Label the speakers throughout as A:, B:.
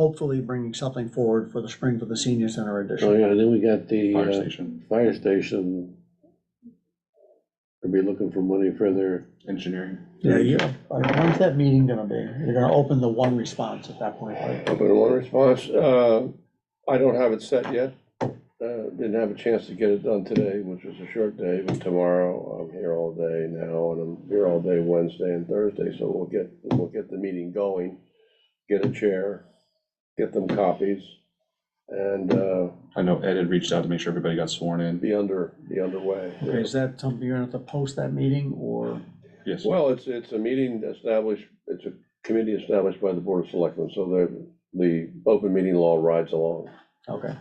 A: hopefully bringing something forward for the spring for the senior center
B: Oh,
A: edition.
B: yeah, and then we got the
C: fire
B: uh,
C: station,
B: fire station. Could be looking for money for their,
C: engineering.
A: Yeah, you, all right, when's that meeting gonna be? You're gonna open the one response at that point, right?
D: Open one response, uh, I don't have it set yet. Uh, Didn't have a chance to get it done today, which was a short day, but tomorrow, I'm here all day now, and I'm here all day Wednesday and Thursday, so we'll get, we'll get the meeting going. Get a chair, get them copies, and uh,
C: I know Ed had reached out to make sure everybody got sworn in.
D: be under, be underway.
A: Okay, is that something you're gonna have to post that meeting or?
C: Yes,
D: Well, it's, it's a meeting established, it's a committee established by the Board of Selectmen, so the, the open meeting law rides along.
A: Okay.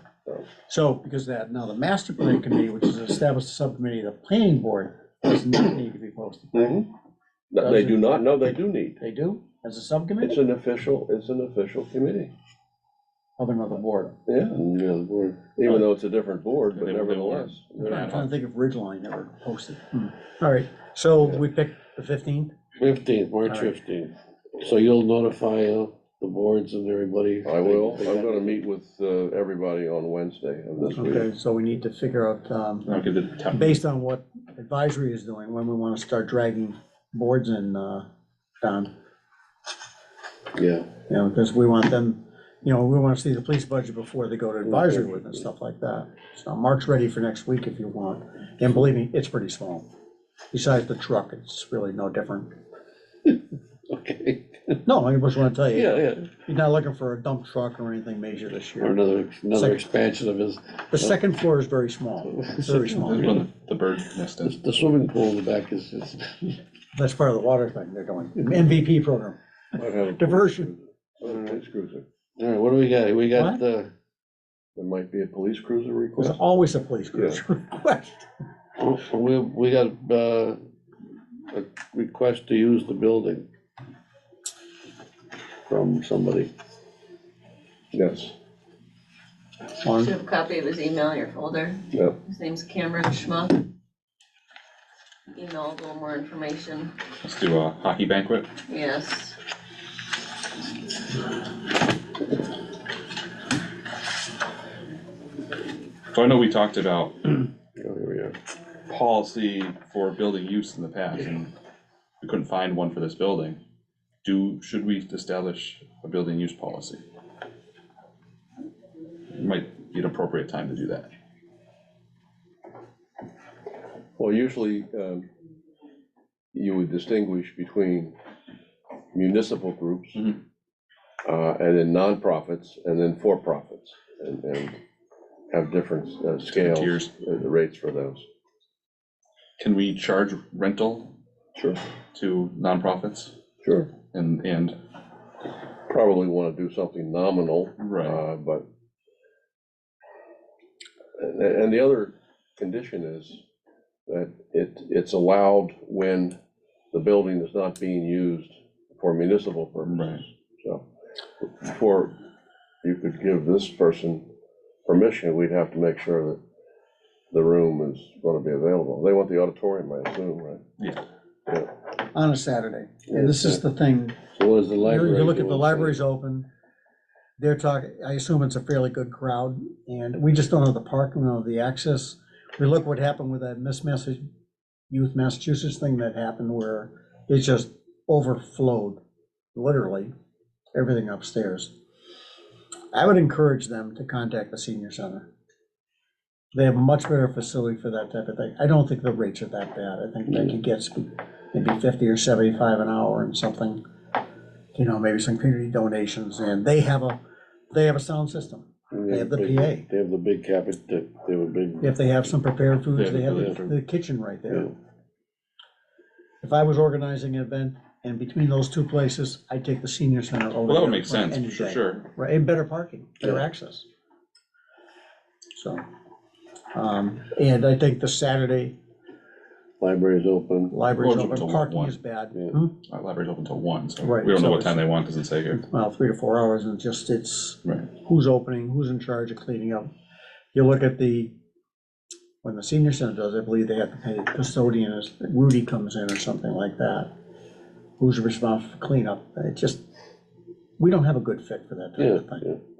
A: So because that, now the master plan committee, which is established subcommittee of the planning board, does not need to be posted.
B: Mm-hmm.
D: That They do not, no, they do need.
A: They do, as a
D: It's
A: subcommittee
D: an official, it's an official committee,
A: of another board.
D: yeah,
B: you know, the board.
D: even though it's a different board, but
C: They- they weren't.
D: nevertheless.
A: I'm trying to think of Ridgeline never posted. Hmm. All right, so we picked the fifteenth?
B: Fifteenth, March
A: All right.
B: fifteenth. So you'll notify uh, the boards and everybody.
D: I will, I'm gonna meet with uh, everybody on Wednesday of this week.
A: Okay, so we need to figure out, um,
C: I'll give the town,
A: based on what advisory is doing, when we want to start dragging boards in, uh, Don.
B: Yeah,
A: You know, because we want them, you know, we want to see the police budget before they go to advisory with and stuff like that. So Mark's ready for next week if you want, and believe me, it's pretty small. Besides the truck, it's really no different.
B: okay.
A: No, I just want to tell you,
B: Yeah, yeah.
A: you're not looking for a dump truck or anything major this
B: Or
A: year.
B: another, another
A: Second.
B: expansion of his,
A: The second floor is very small, It's very
C: This is
A: small.
C: when the bird nest
B: the
C: is.
B: the swimming pool in the back is, is,
A: That's part of the water thing they're doing, MVP program.
D: Might have a police
A: Diversion.
D: cruiser. A Police cruiser,
B: all right, what do we got? We got
A: What?
B: the,
D: there might be a police cruiser
A: There's
D: request.
A: always a police cruiser request.
B: we, we got, uh, a request to use the building from somebody.
D: Yes,
A: Lauren?
E: Should have a copy of his email in your folder.
D: yeah,
E: His name's Cameron Schmuck. Email a little more information.
C: Let's do a hockey banquet.
E: Yes.
C: So I know we talked about
D: yeah, Oh, here we are.
C: policy for building use in the past, and we couldn't find one for this building. Do, should we establish a building use policy? Might be an appropriate time to do that.
D: Well, usually, um, you would distinguish between municipal groups
C: Mhm.
D: uh, and then nonprofits and then for-profits and, and have different uh, scales,
C: Tiers.
D: uh, the rates for those.
C: Can we charge rental
D: Sure.
C: to nonprofits
D: Sure.
C: and, and,
D: Probably want to do something nominal,
C: right,
D: uh, but and, and the other condition is that it, it's allowed when the building is not being used for municipal purposes.
C: right.
D: So, before you could give this person permission, we'd have to make sure that the room is gonna be available. They want the auditorium, I assume, right?
A: on a Saturday. And this is the thing,
B: So what is the
A: you
B: library?
A: you look at the
B: doing?
A: library's open, they're talking, I assume it's a fairly good crowd, and we just don't have the parking, we don't have the access. We look what happened with that Miss Message, Youth Massachusetts thing that happened where it just overflowed, literally, everything upstairs. I would encourage them to contact the senior center. They have a much better facility for that type of thing. I don't think the rates are that bad. I think they could get maybe fifty or seventy-five an hour and something you know, maybe some community donations, and they have a, they have a sound system. They have the
B: big-
A: PA.
B: They have the big cabinet, they they have a big.
A: If they have some prepared
C: They
A: foods,
C: have
A: they have
C: the
A: the the kitchen right there.
B: Yeah.
A: If I was organizing an event, and between those two places, I'd take the senior center over.
C: Well, that would
A: the
C: make
A: other one
C: sense,
A: any
C: for
A: day.
C: sure.
A: Right, and better parking, better
B: Yeah.
A: access. So, um, and I think the Saturday
B: Library's open,
A: library's
C: Well,
A: open,
C: till
A: parking
C: one.
A: is bad.
B: Yeah.
A: Hmm?
C: Our library's open till one, so
A: Right,
C: we don't
A: so
C: know what
A: it's-
C: time they want, doesn't say here.
A: Well, three to four hours, and just, it's,
C: Right.
A: who's opening, who's in charge of cleaning up. You look at the, when the senior center does, I believe they have to pay custodian, as Rudy comes in or something like that. Who's responsible for cleanup? It just, we don't have a good fit for that type of
D: Yeah,
A: thing.
D: yeah.